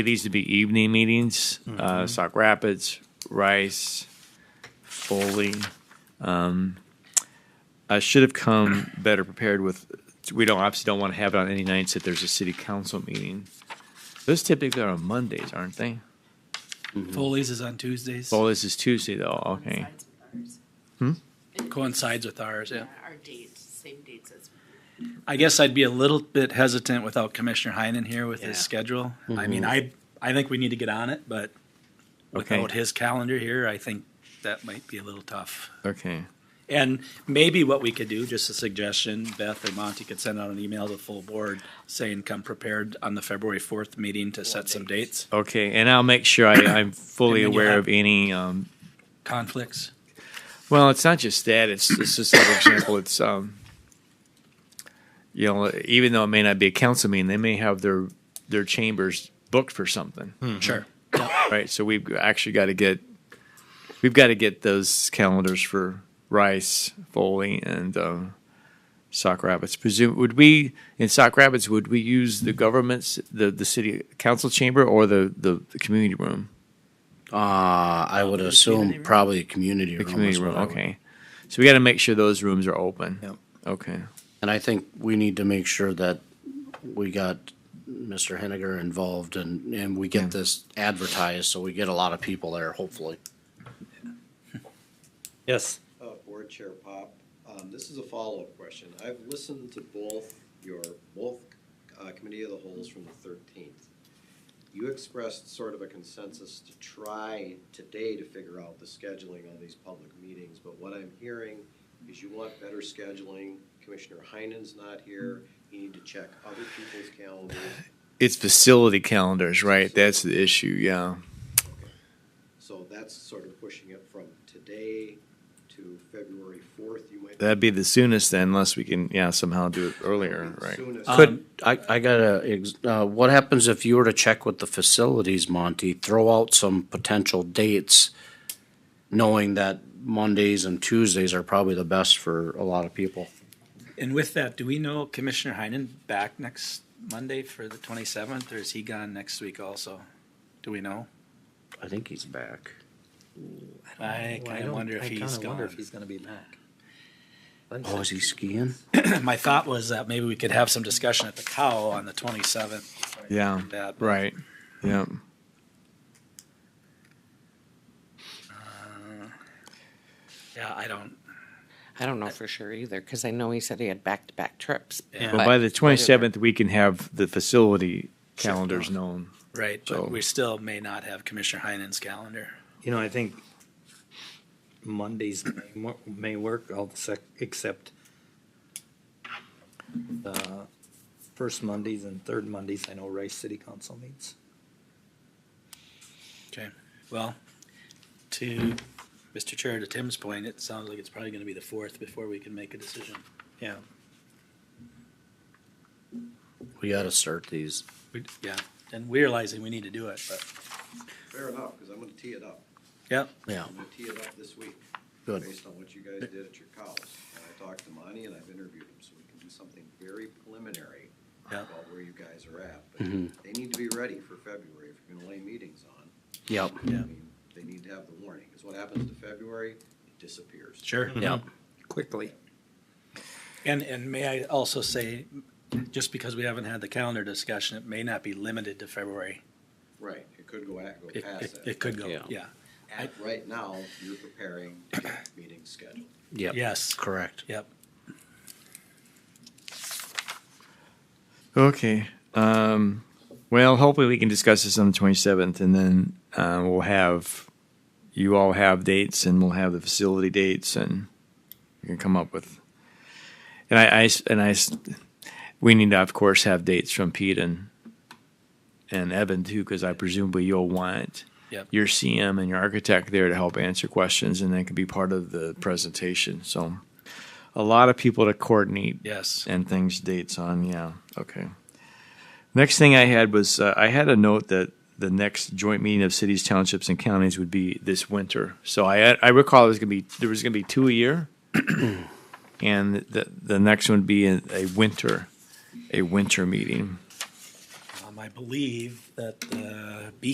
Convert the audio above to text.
These would be evening meetings, Mm-hmm. uh, Sauk Rapids, Rice, Foley. Um, I should have come better prepared with, we don't, obviously don't want to have it on any nights that there's a city council meeting. Those typically are on Mondays, aren't they? Foley's is on Tuesdays. Oh, this is Tuesday though, okay. coincides with ours. Coincides with ours, yeah. Our dates, same dates as. I guess I'd be a little bit hesitant without Commissioner Heinen here with his Yeah. schedule. I mean, I, I think we need to get on it, but Okay, without his calendar here, I think that might be a little tough. okay. And maybe what we could do, just a suggestion, Beth or Monty could send out an email to the full board saying, come prepared on the February fourth meeting to set some dates. Okay, and I'll make sure I, I'm fully And then you'll aware of have- any, um, Conflicts? Well, it's not just that. It's, it's just an example. It's um, you know, even though it may not be a council meeting, they may have their their chambers booked for something, Sure. right? So we've actually got to get we've got to get those calendars for Rice, Foley, and um, Sock Rapids. Presume would we in Sock Rapids would we use the government's the the city council chamber or the the, the community room? Uh, I would assume probably a community The room. community is what room. I would- Okay, so we got to make sure those rooms are open. Yep. Okay. And I think we need to make sure that we got Mr. Henniger involved and, and we get this advertised, so we get a lot of people there, hopefully. Yes. Uh, Board Chair Pop, um, this is a follow-up question. I've listened to both your, both, uh, Committee of the Holes from the thirteenth. You expressed sort of a consensus to try today to figure out the scheduling of these public meetings, but what I'm hearing is you want better scheduling. Commissioner Heinen's not here. You need to check other people's calendars. It's facility calendars, right? That's the issue, yeah. So that's sort of pushing it from today to February fourth. You might. That'd be the soonest then, unless we can, yeah, somehow do it earlier, right? Soonest. Could, Um, I, I gotta, ex- uh, what happens if you were to check with the facilities, Monty, throw out some potential dates, knowing that Mondays and Tuesdays are probably the best for a lot of people? And with that, do we know Commissioner Heinen back next Monday for the twenty-seventh, or is he gone next week also? Do we know? I think he's back. I Well, kind of don't- wonder if I he's kinda wonder gone. if he's gonna be back. Oh, is he skiing? My thought was that maybe we could have some discussion at the cow on the twenty-seventh. Um, Yeah, right, yeah. Yeah, I don't, I don't know for sure either, because I know he said he had back-to-back trips. Yeah. Well, by the twenty-seventh, we can have the facility calendars known. right, So- but we still may not have Commissioner Heinen's calendar. You know, I think Mondays may, mo- may work, all the sec, except the first Mondays and third Mondays, I know Rice City Council meets. Okay, well, to Mr. Chair, to Tim's point, it sounds like it's probably gonna be the fourth before we can make a decision. Yeah. We gotta start these. We- Yeah, and we're realizing we need to do it, but, Fair enough, because I'm going to tee it up. yeah, Yeah, I'm gonna tee it up this week, good. based on what you guys did at your cows. And I talked to Monty and I've interviewed him, so we can do something very preliminary Yeah. Mm-hmm. about where you guys are at. But they need to be ready for February if you're gonna lay meetings on. Yep. I Yeah. mean, They need to have the warning, because what happens to February, it disappears. sure. Mm-hmm. Yeah. Quickly. And, and may I also say, just because we haven't had the calendar discussion, it may not be limited to February. Right, it could go at, go It, past it, that. it could go, Yeah. yeah. At right now, you're preparing to get meetings scheduled. Yep. Yes, Correct. yep. Okay, um, well, hopefully we can discuss this on the twenty-seventh and then, uh, we'll have, you all have dates and we'll have the facility dates and we can come up with. And I, I s- and I, s- we need to, of course, have dates from Pete and, and Evan too, because I presumably you'll want Yep. your CM and your architect there to help answer questions and that can be part of the presentation, so. A lot of people to coordinate Yes. and things dates on yeah okay next thing i had was uh, i had a note that the next joint meeting of cities townships and counties would be this winter so i i recall it was going to be there was going to be two a year and the the next one would be a, a winter a winter meeting Um, I believe that uh, the